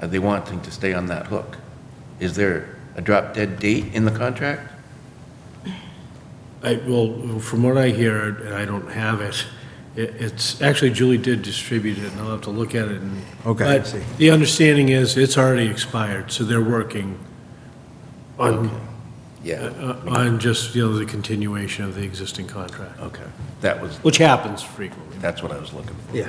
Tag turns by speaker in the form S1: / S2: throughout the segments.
S1: are Uh, they wanting to stay on that hook? Is there a drop dead date in the contract?
S2: I, well, from what I hear, and I don't have it, it- it's, actually Julie did distribute it, and I'll have to look at it and.
S3: Okay, I
S2: but
S3: see.
S2: The understanding is it's already expired, so they're working on,
S1: Yeah,
S2: uh, on just, you know, the continuation of the existing contract,
S1: okay. That was,
S2: which happens frequently.
S1: that's what I was looking for.
S3: Yeah.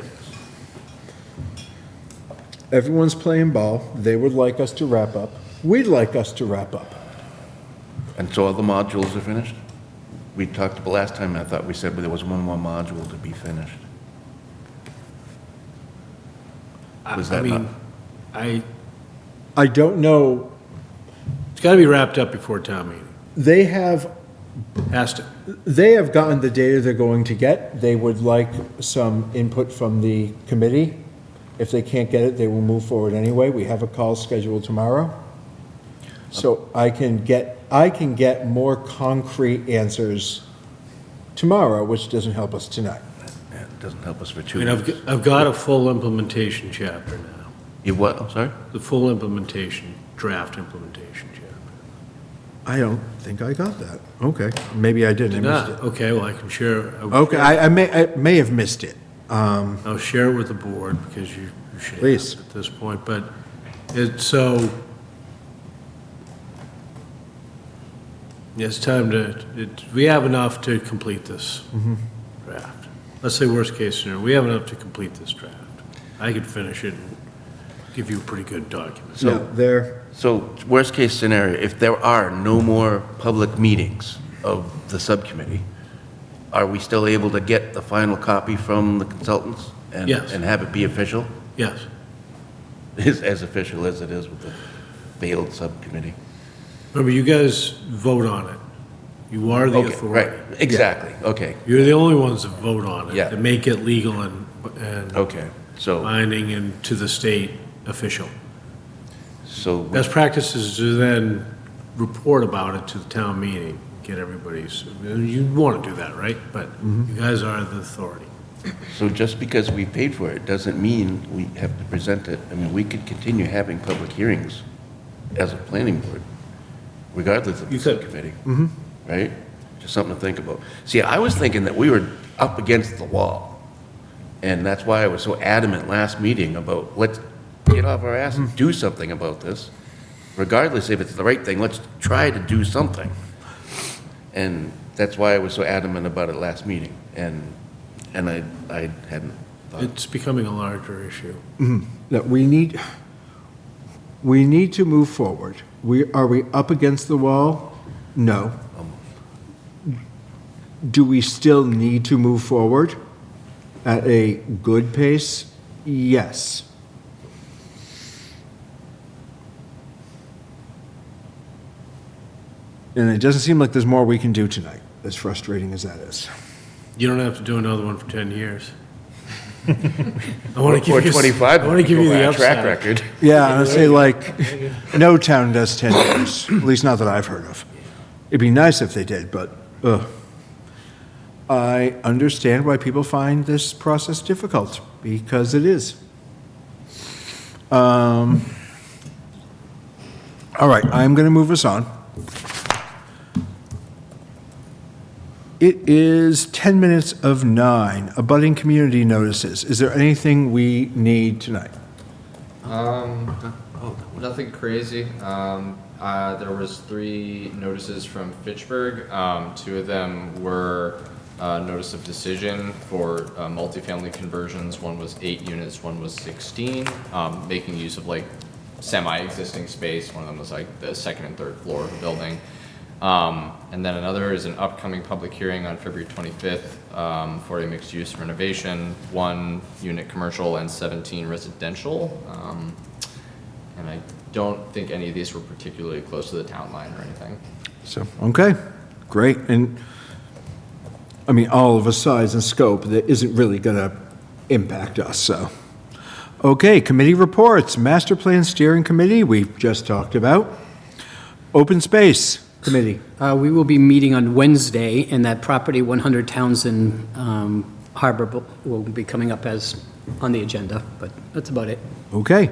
S3: Everyone's playing ball. They would like us to wrap up. We'd like us to wrap up.
S1: And so all the modules are finished? We talked about last time, I thought we said there was one more module to be finished.
S2: I-
S1: Was
S2: I
S1: that not-
S2: mean, I,
S3: I don't know,
S2: it's gotta be wrapped up before town meeting,
S3: they have,
S2: has to.
S3: they have gotten the data they're going to get. They would like some input from the committee. If they can't get it, they will move forward anyway. We have a call scheduled tomorrow. So I can get, I can get more concrete answers tomorrow, which doesn't help us tonight.
S1: Yeah, It doesn't help us for
S2: I
S1: two
S2: mean, I've,
S1: weeks.
S2: g- I've got a full implementation chapter now,
S1: You what, I'm sorry?
S2: the full implementation, draft implementation chapter.
S3: I don't think I got that. Okay, maybe I didn't. I missed
S2: Ah, okay, well, I can share. I
S3: it.
S2: will
S3: Okay,
S2: share-
S3: I, I may, I may have missed it. Um,
S2: I'll share it with the board because you you should have
S3: Please.
S2: it at this point, but it, so it's time to, it, we have enough to complete this draft. Let's say worst case scenario, we have enough to complete this draft. I could finish it and give you a pretty good document.
S3: yeah, there,
S1: So worst-case scenario, if there are no more public meetings of the subcommittee, are we still able to get the final copy from the consultants? and
S2: Yes.
S1: And have it be official,
S2: Yes,
S1: as, as official as it is with the failed subcommittee?
S2: remember, you guys vote on it. You are the
S1: Okay,
S2: authority.
S1: Right, exactly, okay,
S2: You're the only ones that vote on it.
S1: Yeah. Oh.
S2: To make it legal and, and
S1: okay. So,
S2: binding and to the state official.
S1: so,
S2: Best practice is to then report about it to the town meeting, get everybody's, you want to do that, right? But
S1: Mm-hmm.
S2: you guys are the authority.
S1: so just because we paid for it doesn't mean we have to present it. I mean, we could continue having public hearings as a planning board, regardless of the
S2: You could.
S1: subcommittee. Mm-hmm. Right? Just something to think about. See, I was thinking that we were up against the wall, and that's why I was so adamant last meeting about, let's get off our ass
S2: Mm-hmm.
S1: and do something about this. Regardless if it's the right thing, let's try to do something. And that's why I was so adamant about it last meeting, and, and I, I hadn't thought.
S2: It's becoming a larger issue.
S3: that we need, we need to move forward. We, are we up against the wall? No. Do we still need to move forward at a good pace? Yes. And it doesn't seem like there's more we can do tonight, as frustrating as that is.
S2: You don't have to do another one for 10 years. I want to
S1: Or
S2: give you.
S1: 25.
S2: I want to give you
S1: go by
S2: the
S1: our Track
S2: upside.
S1: record.
S3: Yeah, I'd say like, no town does 10 years, at least not that I've heard of. It'd be nice if they did, but, ugh. I understand why people find this process difficult, because it is. Um. All right, I'm going to move us on. It is 10 minutes of nine, abutting community notices. Is there anything we need tonight?
S4: Um, nothing crazy. Um, uh, there was three notices from Fitchburg. Um, two of them were uh, notice of decision for uh, multifamily conversions. One was eight units. One was sixteen. Um, making use of like semi-existing space. One of them was like the second and third floor of a building. Um, and then another is an upcoming public hearing on February 25th um, for a mixed-use renovation, one unit commercial and 17 residential. Um, and I don't think any of these were particularly close to the town line or anything.
S3: So, okay, great. And, I mean, all of a size and scope that isn't really going to impact us, so. Okay, committee reports, master plan steering committee, we've just talked about. Open space committee.
S5: Uh, We will be meeting on Wednesday, and that property 100 Townsend um, Harbor bu- will be coming up as on the agenda, but that's about it.
S3: Okay.